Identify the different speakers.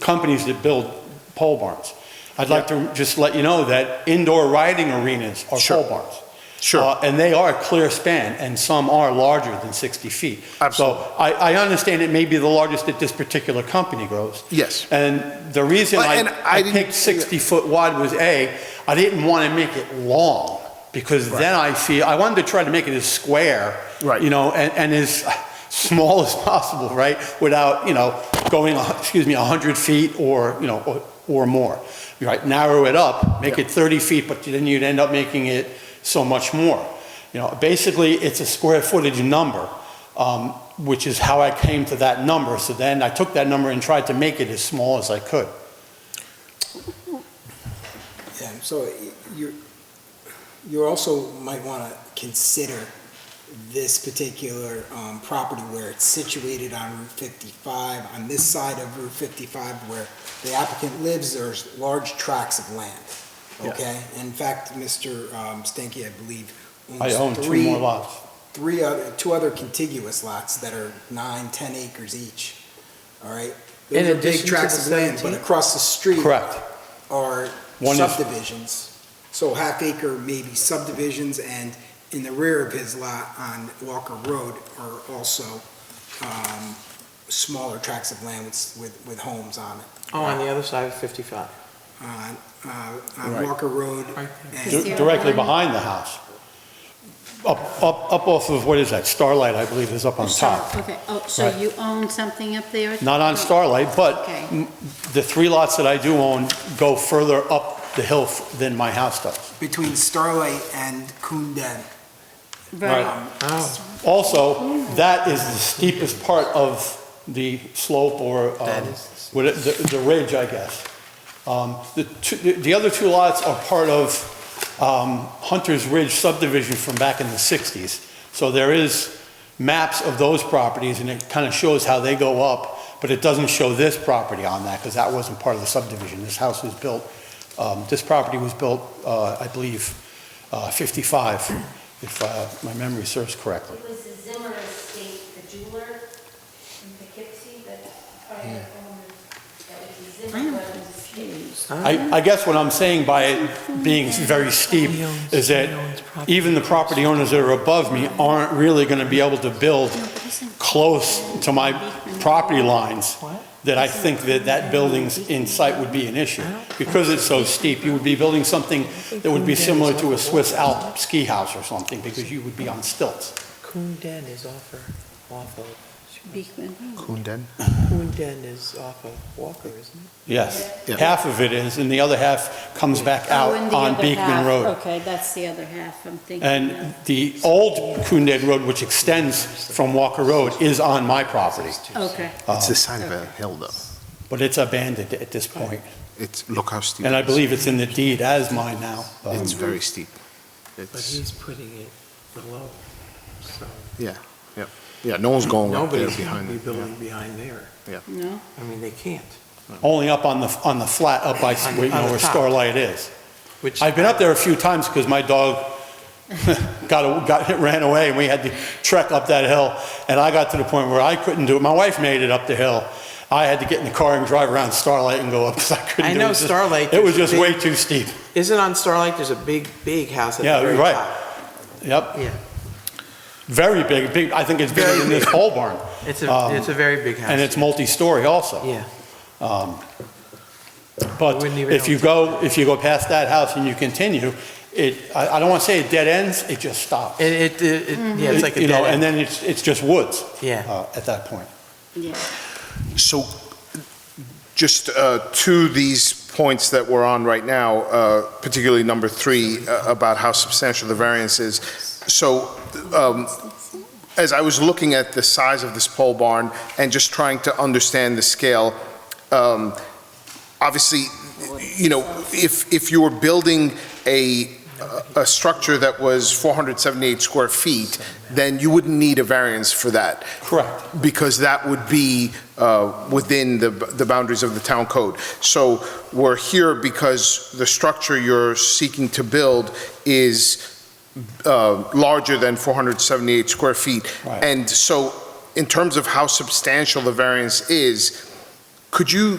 Speaker 1: companies that build pole barns. I'd like to just let you know that indoor riding arenas are
Speaker 2: Sure.
Speaker 1: pole barns.
Speaker 2: Sure.
Speaker 1: Uh, And they are clear span, and some are larger than 60 feet.
Speaker 2: Absolutely.
Speaker 1: So I, I understand it may be the largest that this particular company grows.
Speaker 2: Yes.
Speaker 1: And the reason
Speaker 2: Well,
Speaker 1: I
Speaker 2: and I
Speaker 1: I
Speaker 2: didn't-
Speaker 1: picked 60-foot wide was A, I didn't want to make it long, because then I feel, I wanted to try to make it as square.
Speaker 2: Right.
Speaker 1: You know, and, and as small as possible, right? Without, you know, going, a hun- excuse me, 100 feet or, you know, or- or more. Right, narrow it up, make it 30 feet, but then you'd end up making it so much more. You know, basically, it's a square footage number, um, which is how I came to that number. So then I took that number and tried to make it as small as I could.
Speaker 3: Yeah, so you're, you also might want to consider this particular um, property where it's situated on Route 55, on this side of Route 55 where the applicant lives, there's large tracts of land, okay? In fact, Mr. um, Stenke, I believe,
Speaker 1: I own
Speaker 3: owns
Speaker 1: two
Speaker 3: three,
Speaker 1: more lots.
Speaker 3: three, other- two other contiguous lots that are nine, 10 acres each, all right?
Speaker 4: In
Speaker 3: Those are big
Speaker 4: addition to
Speaker 3: tracts
Speaker 4: the
Speaker 3: of land, but
Speaker 4: 17?
Speaker 3: across the street
Speaker 1: Correct.
Speaker 3: are
Speaker 1: One is-
Speaker 3: subdivisions. So half acre maybe subdivisions and in the rear of his lot on Walker Road are also um, smaller tracts of land with, with, with homes on it.
Speaker 4: Oh, on the other side of 55.
Speaker 3: On, uh, on
Speaker 2: Right.
Speaker 3: Walker Road
Speaker 4: Right
Speaker 3: and,
Speaker 1: Di- Directly behind the house. Up, up, up off of, what is that, Starlight, I believe, is up on top.
Speaker 5: So, Okay, oh, so
Speaker 1: Right.
Speaker 5: you own something up there?
Speaker 1: Not on Starlight, but
Speaker 5: Okay.
Speaker 1: m- the three lots that I do own go further up the hill f- than my house does.
Speaker 3: between Starlight and Coon Den.
Speaker 5: Right,
Speaker 3: Um,
Speaker 4: Oh,
Speaker 1: Also, that is the steepest part of the slope or um,
Speaker 4: That is-
Speaker 1: what it- the the ridge, I guess. Um, The two- the the other two lots are part of um, Hunter's Ridge subdivision from back in the 60s. So there is maps of those properties, and it kind of shows how they go up, but it doesn't show this property on that, because that wasn't part of the subdivision. This house was built, um, this property was built, uh, I believe, uh, 55, if uh, my memory serves correctly.
Speaker 6: It was the Zimmer estate, the jeweler in Poughkeepsie, that prior owner, that was the Zimmer
Speaker 5: I'm
Speaker 6: brothers' estate.
Speaker 5: confused.
Speaker 1: I, I guess what I'm saying by it being very steep is that even the property owners that are above me aren't really going to be able to build close to my property lines that I think that that building's in sight would be an issue. Because it's so steep, you would be building something that would be similar to a Swiss Alp ski house or something because you would be on stilts.
Speaker 4: Coon Den is off of, off of,
Speaker 5: Beekman.
Speaker 2: Kunden?
Speaker 4: Coon Den is off of Walker, isn't it?
Speaker 1: Yes.
Speaker 2: Yeah.
Speaker 1: Half of it is, and the other half comes back
Speaker 5: Oh,
Speaker 1: out
Speaker 5: and the
Speaker 1: on
Speaker 5: other
Speaker 1: Beekman
Speaker 5: half,
Speaker 1: Road.
Speaker 5: Okay, that's the other half I'm thinking
Speaker 1: And
Speaker 5: of.
Speaker 1: the old Coondead Road, which extends from Walker Road, is on my property,
Speaker 5: Okay,
Speaker 1: Ah.
Speaker 2: It's the side of a hill though.
Speaker 1: but it's abandoned at this point.
Speaker 2: It's, look how steep.
Speaker 1: And I
Speaker 2: it is.
Speaker 1: believe it's in the deed as mine now. Um,
Speaker 2: It's very steep.
Speaker 4: But
Speaker 2: It's,
Speaker 4: he's putting it below, so
Speaker 2: yeah, no one's going up there
Speaker 4: nobody's going
Speaker 2: behind
Speaker 4: to be
Speaker 2: it. yeah.
Speaker 4: building behind there.
Speaker 5: no?
Speaker 4: I mean, they can't,
Speaker 1: Only up on the, on the flat, up by,
Speaker 4: On-
Speaker 1: where, you
Speaker 4: on
Speaker 1: know,
Speaker 4: the
Speaker 1: where
Speaker 4: top.
Speaker 1: Starlight is.
Speaker 4: which.
Speaker 1: I've been up there a few times because my dog got, got, ran away and we had to trek up that hill. And I got to the point where I couldn't do it. My wife made it up the hill. I had to get in the car and drive around Starlight and go up because I couldn't
Speaker 4: I
Speaker 1: do it.
Speaker 4: know
Speaker 1: It was just-
Speaker 4: Starlight,
Speaker 1: It was
Speaker 4: there's
Speaker 1: just
Speaker 4: a
Speaker 1: way
Speaker 4: big-
Speaker 1: too steep.
Speaker 4: Isn't on Starlight, there's a big, big house at
Speaker 1: Yeah,
Speaker 4: the very
Speaker 1: right.
Speaker 4: top?
Speaker 1: Yep.
Speaker 4: Yeah,
Speaker 1: Very big, big, I think it's bigger
Speaker 4: Very
Speaker 1: than this
Speaker 4: big.
Speaker 1: pole barn,
Speaker 4: it's
Speaker 1: Um,
Speaker 4: a, it's a very big house.
Speaker 1: and it's multi-story also.
Speaker 4: Yeah,
Speaker 1: Um, But
Speaker 4: Wouldn't even
Speaker 1: if you go,
Speaker 4: know.
Speaker 1: if you go past that house and you continue, it, I I don't want to say it dead ends, it just stops.
Speaker 4: it, it- it, it- yeah, it's like a
Speaker 1: Mm-hmm. You
Speaker 4: dead
Speaker 1: know, and
Speaker 4: end.
Speaker 1: then it's, it's just woods
Speaker 4: Yeah,
Speaker 1: uh, at that point.
Speaker 5: Yeah.
Speaker 2: So just uh, to these points that we're on right now, uh, particularly number three, uh, about how substantial the variance is. So um, as I was looking at the size of this pole barn and just trying to understand the scale, um, obviously, you know, if, if you were building a, a structure that was 478 square feet, then you wouldn't need a variance for that
Speaker 1: Correct.
Speaker 2: because that would be uh, within the the boundaries of the town code. So we're here because the structure you're seeking to build is uh, larger than 478 square feet.
Speaker 1: Right.
Speaker 2: And so in terms of how substantial the variance is, could you